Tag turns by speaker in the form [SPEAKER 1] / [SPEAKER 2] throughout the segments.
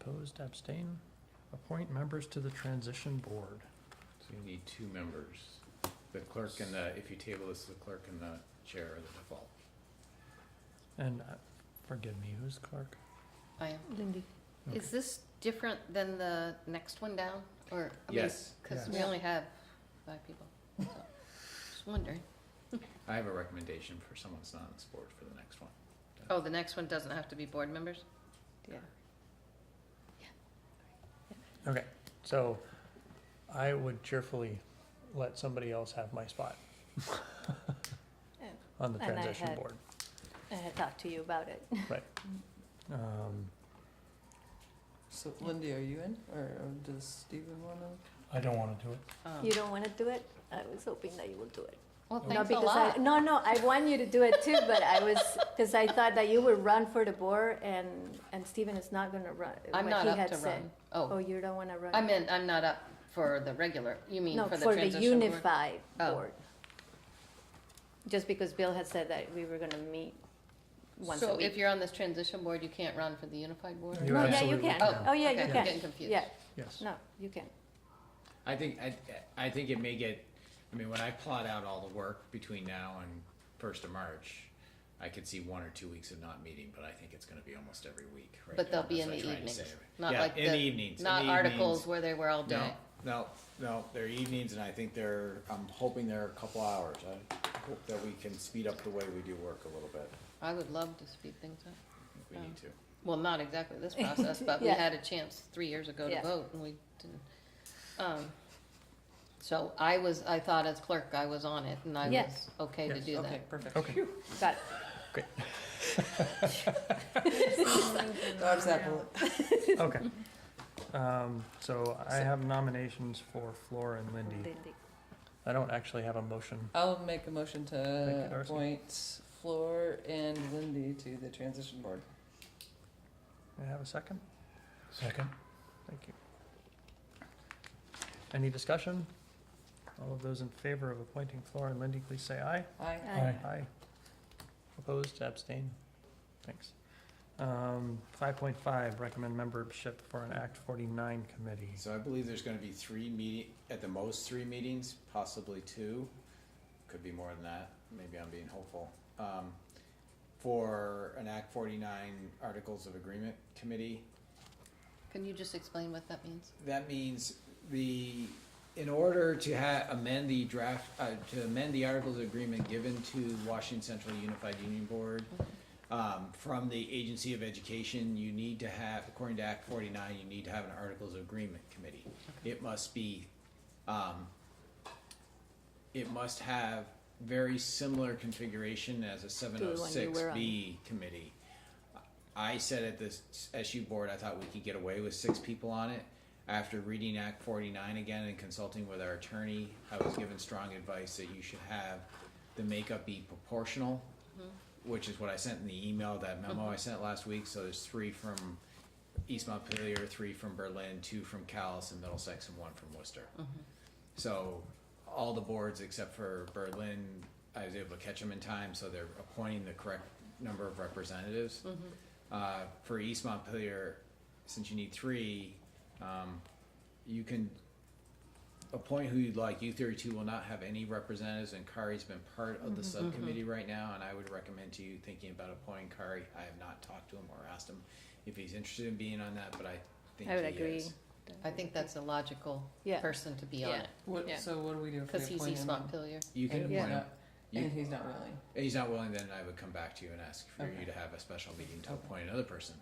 [SPEAKER 1] Opposed, abstain? Appoint members to the transition board.
[SPEAKER 2] So you need two members, the clerk and the, if you table this, the clerk and the chair are the default.
[SPEAKER 1] And uh, forgive me, who's clerk?
[SPEAKER 3] I am.
[SPEAKER 4] Lindy.
[SPEAKER 1] Okay.
[SPEAKER 3] Is this different than the next one down, or?
[SPEAKER 2] Yes,
[SPEAKER 3] Because we
[SPEAKER 1] Yes.
[SPEAKER 3] only have five people, so, just wondering.
[SPEAKER 2] I have a recommendation for someone that's not on this board for the next one.
[SPEAKER 3] Oh, the next one doesn't have to be board members? Yeah.
[SPEAKER 1] Okay, so I would cheerfully let somebody else have my spot on the
[SPEAKER 4] And I
[SPEAKER 1] transition
[SPEAKER 4] had-
[SPEAKER 1] board.
[SPEAKER 4] I had talked to you about it.
[SPEAKER 1] Um,
[SPEAKER 5] So Lindy, are you in, or or does Stephen wanna?
[SPEAKER 1] I don't want to do it.
[SPEAKER 3] Um,
[SPEAKER 4] You don't want to do it? I was hoping that you will do it.
[SPEAKER 3] Well,
[SPEAKER 1] No,
[SPEAKER 4] Not
[SPEAKER 3] thanks a
[SPEAKER 4] because I-
[SPEAKER 3] lot.
[SPEAKER 4] No, no, I want you to do it too, but I was, because I thought that you would run for the board and, and Stephen is not going to run.
[SPEAKER 3] I'm
[SPEAKER 4] what
[SPEAKER 3] not
[SPEAKER 4] he
[SPEAKER 3] up
[SPEAKER 4] had
[SPEAKER 3] to
[SPEAKER 4] said.
[SPEAKER 3] run.
[SPEAKER 4] Oh,
[SPEAKER 3] Oh,
[SPEAKER 4] you don't want to run?
[SPEAKER 3] I meant, I'm not up for the regular, you mean
[SPEAKER 4] No,
[SPEAKER 3] for the transition board?
[SPEAKER 4] unified
[SPEAKER 3] Oh.
[SPEAKER 4] board. Just because Bill had said that we were going to meet once a
[SPEAKER 3] So if
[SPEAKER 4] week.
[SPEAKER 3] you're on this transition board, you can't run for the unified board?
[SPEAKER 1] You
[SPEAKER 4] No, yeah, you
[SPEAKER 1] absolutely
[SPEAKER 4] can.
[SPEAKER 1] can.
[SPEAKER 4] Oh, yeah,
[SPEAKER 3] Okay,
[SPEAKER 4] you
[SPEAKER 3] I'm
[SPEAKER 4] can.
[SPEAKER 3] getting confused.
[SPEAKER 4] Yeah,
[SPEAKER 1] Yes.
[SPEAKER 4] no, you can.
[SPEAKER 2] I think, I, I think it may get, I mean, when I plot out all the work between now and first of March, I could see one or two weeks of not meeting, but I think it's gonna be almost every week right
[SPEAKER 3] But
[SPEAKER 2] now.
[SPEAKER 3] they'll be
[SPEAKER 2] That's
[SPEAKER 3] in
[SPEAKER 2] what
[SPEAKER 3] the
[SPEAKER 2] I'm trying to
[SPEAKER 3] evenings,
[SPEAKER 2] say.
[SPEAKER 3] not
[SPEAKER 2] Yeah,
[SPEAKER 3] like
[SPEAKER 2] in the
[SPEAKER 3] the,
[SPEAKER 2] evenings, in
[SPEAKER 3] not
[SPEAKER 2] the
[SPEAKER 3] articles
[SPEAKER 2] evenings.
[SPEAKER 3] where they were all day.
[SPEAKER 2] No, no, no, they're evenings and I think they're, I'm hoping they're a couple hours. I hope that we can speed up the way we do work a little bit.
[SPEAKER 3] I would love to speed things up.
[SPEAKER 2] if We need to.
[SPEAKER 3] Well, not exactly this process, but we
[SPEAKER 4] Yeah.
[SPEAKER 3] had a chance three years ago to
[SPEAKER 4] Yeah.
[SPEAKER 3] vote and we didn't. Um, So I was, I thought as clerk, I was on it and I was
[SPEAKER 4] Yes.
[SPEAKER 3] okay to
[SPEAKER 1] Yes.
[SPEAKER 3] do
[SPEAKER 5] Okay,
[SPEAKER 3] that.
[SPEAKER 5] perfect.
[SPEAKER 1] Okay.
[SPEAKER 4] Got it.
[SPEAKER 5] Dog's apple.
[SPEAKER 1] Okay. Um, so I have nominations for Flora and Lindy.
[SPEAKER 4] Lindy.
[SPEAKER 1] I don't actually have a motion.
[SPEAKER 5] I'll make a motion
[SPEAKER 1] Thank you,
[SPEAKER 5] to
[SPEAKER 1] Darcy.
[SPEAKER 5] appoint Floor and Lindy to the transition board.
[SPEAKER 1] May I have a second?
[SPEAKER 6] Second.
[SPEAKER 1] Thank you. Any discussion? All of those in favor of appointing Flora and Lindy, please say aye.
[SPEAKER 5] Aye.
[SPEAKER 4] Aye.
[SPEAKER 1] Aye. Opposed, abstain? Thanks. Um, five point five, recommend membership for an Act forty-nine committee.
[SPEAKER 2] So I believe there's gonna be three meeting, at the most, three meetings, possibly two, could be more than that, maybe I'm being hopeful. Um, for an Act forty-nine Articles of Agreement Committee,
[SPEAKER 3] Can you just explain what that means?
[SPEAKER 2] that means the, in order to ha- amend the draft, uh, to amend the Articles of Agreement given to Washington Central Unified Union Board, um, from the Agency of Education, you need to have, according to Act forty-nine, you need to have an Articles of Agreement Committee. It must be, um, it must have very similar configuration as a seven
[SPEAKER 4] the
[SPEAKER 2] oh
[SPEAKER 4] one you
[SPEAKER 2] six
[SPEAKER 4] were on.
[SPEAKER 2] B committee. I said at this SU board, I thought we could get away with six people on it. After reading Act forty-nine again and consulting with our attorney, I was given strong advice that you should have the makeup be proportional, which is what I sent in the email, that memo I sent last week, so there's three from East Montpelier, three from Berlin, two from Callis and Middlesex, and one from Worcester. So all the boards except for Berlin, I was able to catch them in time, so they're appointing the correct number of representatives.
[SPEAKER 4] Mm-hmm.
[SPEAKER 2] Uh, for East Montpelier, since you need three, um, you can appoint who you'd like. U thirty-two will not have any representatives, and Kari's been part of the
[SPEAKER 4] Mm-hmm,
[SPEAKER 2] subcommittee right now, and I would recommend to you thinking about appointing Kari. I have not talked to him or asked him if he's interested in being on that, but I think
[SPEAKER 4] I would
[SPEAKER 2] he
[SPEAKER 4] agree.
[SPEAKER 2] is.
[SPEAKER 3] I think that's a logical
[SPEAKER 4] Yeah.
[SPEAKER 3] person to be on
[SPEAKER 4] Yeah.
[SPEAKER 3] it,
[SPEAKER 5] What,
[SPEAKER 4] Yeah.
[SPEAKER 5] so what do we do if
[SPEAKER 3] because
[SPEAKER 5] we
[SPEAKER 3] he's
[SPEAKER 5] appoint
[SPEAKER 3] East
[SPEAKER 5] him?
[SPEAKER 3] Montpelier.
[SPEAKER 2] You can
[SPEAKER 5] And
[SPEAKER 2] appoint
[SPEAKER 5] he's
[SPEAKER 2] him.
[SPEAKER 5] not,
[SPEAKER 2] You-
[SPEAKER 5] and he's not willing.
[SPEAKER 2] If he's not willing, then I would come back to you and ask for you
[SPEAKER 5] Okay.
[SPEAKER 2] to have a special meeting to
[SPEAKER 5] Okay.
[SPEAKER 2] appoint another person.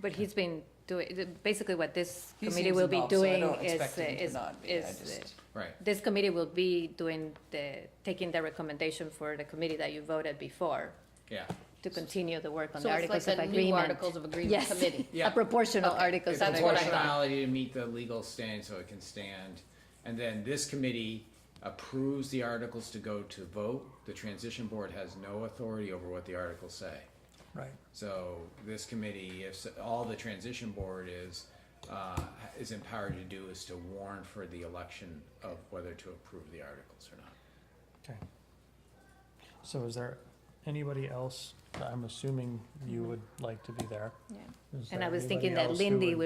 [SPEAKER 4] But he's been doing, basically what this
[SPEAKER 5] He
[SPEAKER 4] committee
[SPEAKER 5] seems
[SPEAKER 4] will be
[SPEAKER 5] involved, so I
[SPEAKER 4] doing
[SPEAKER 5] don't
[SPEAKER 4] is,
[SPEAKER 5] expect him to
[SPEAKER 4] is,
[SPEAKER 5] not be. I
[SPEAKER 4] is,
[SPEAKER 5] just-
[SPEAKER 2] Right.
[SPEAKER 4] this committee will be doing the, taking the recommendation for the committee that you voted before
[SPEAKER 2] Yeah.
[SPEAKER 4] to continue the work on
[SPEAKER 3] So
[SPEAKER 4] the
[SPEAKER 3] it's like
[SPEAKER 4] Articles of
[SPEAKER 3] a new
[SPEAKER 4] Agreement.
[SPEAKER 3] Articles of Agreement
[SPEAKER 4] Yes,
[SPEAKER 3] Committee.
[SPEAKER 2] Yeah.
[SPEAKER 4] a proportional
[SPEAKER 3] Okay.
[SPEAKER 4] Articles of
[SPEAKER 3] That's what I
[SPEAKER 4] Agreement.
[SPEAKER 3] thought.
[SPEAKER 2] Proportionality to meet the legal standard so it can stand. And then this committee approves the articles to go to vote. The transition board has no authority over what the articles say.
[SPEAKER 1] Right.
[SPEAKER 2] So this committee, if, s- all the transition board is, uh, is empowered to do is to warn for the election of whether to approve the articles or not.
[SPEAKER 1] Okay. So is there anybody else, I'm assuming you would like to be there?
[SPEAKER 4] Yeah.
[SPEAKER 1] Is
[SPEAKER 4] And
[SPEAKER 1] there
[SPEAKER 4] I was thinking
[SPEAKER 1] anybody
[SPEAKER 4] that
[SPEAKER 1] else who
[SPEAKER 4] Lindy
[SPEAKER 1] would-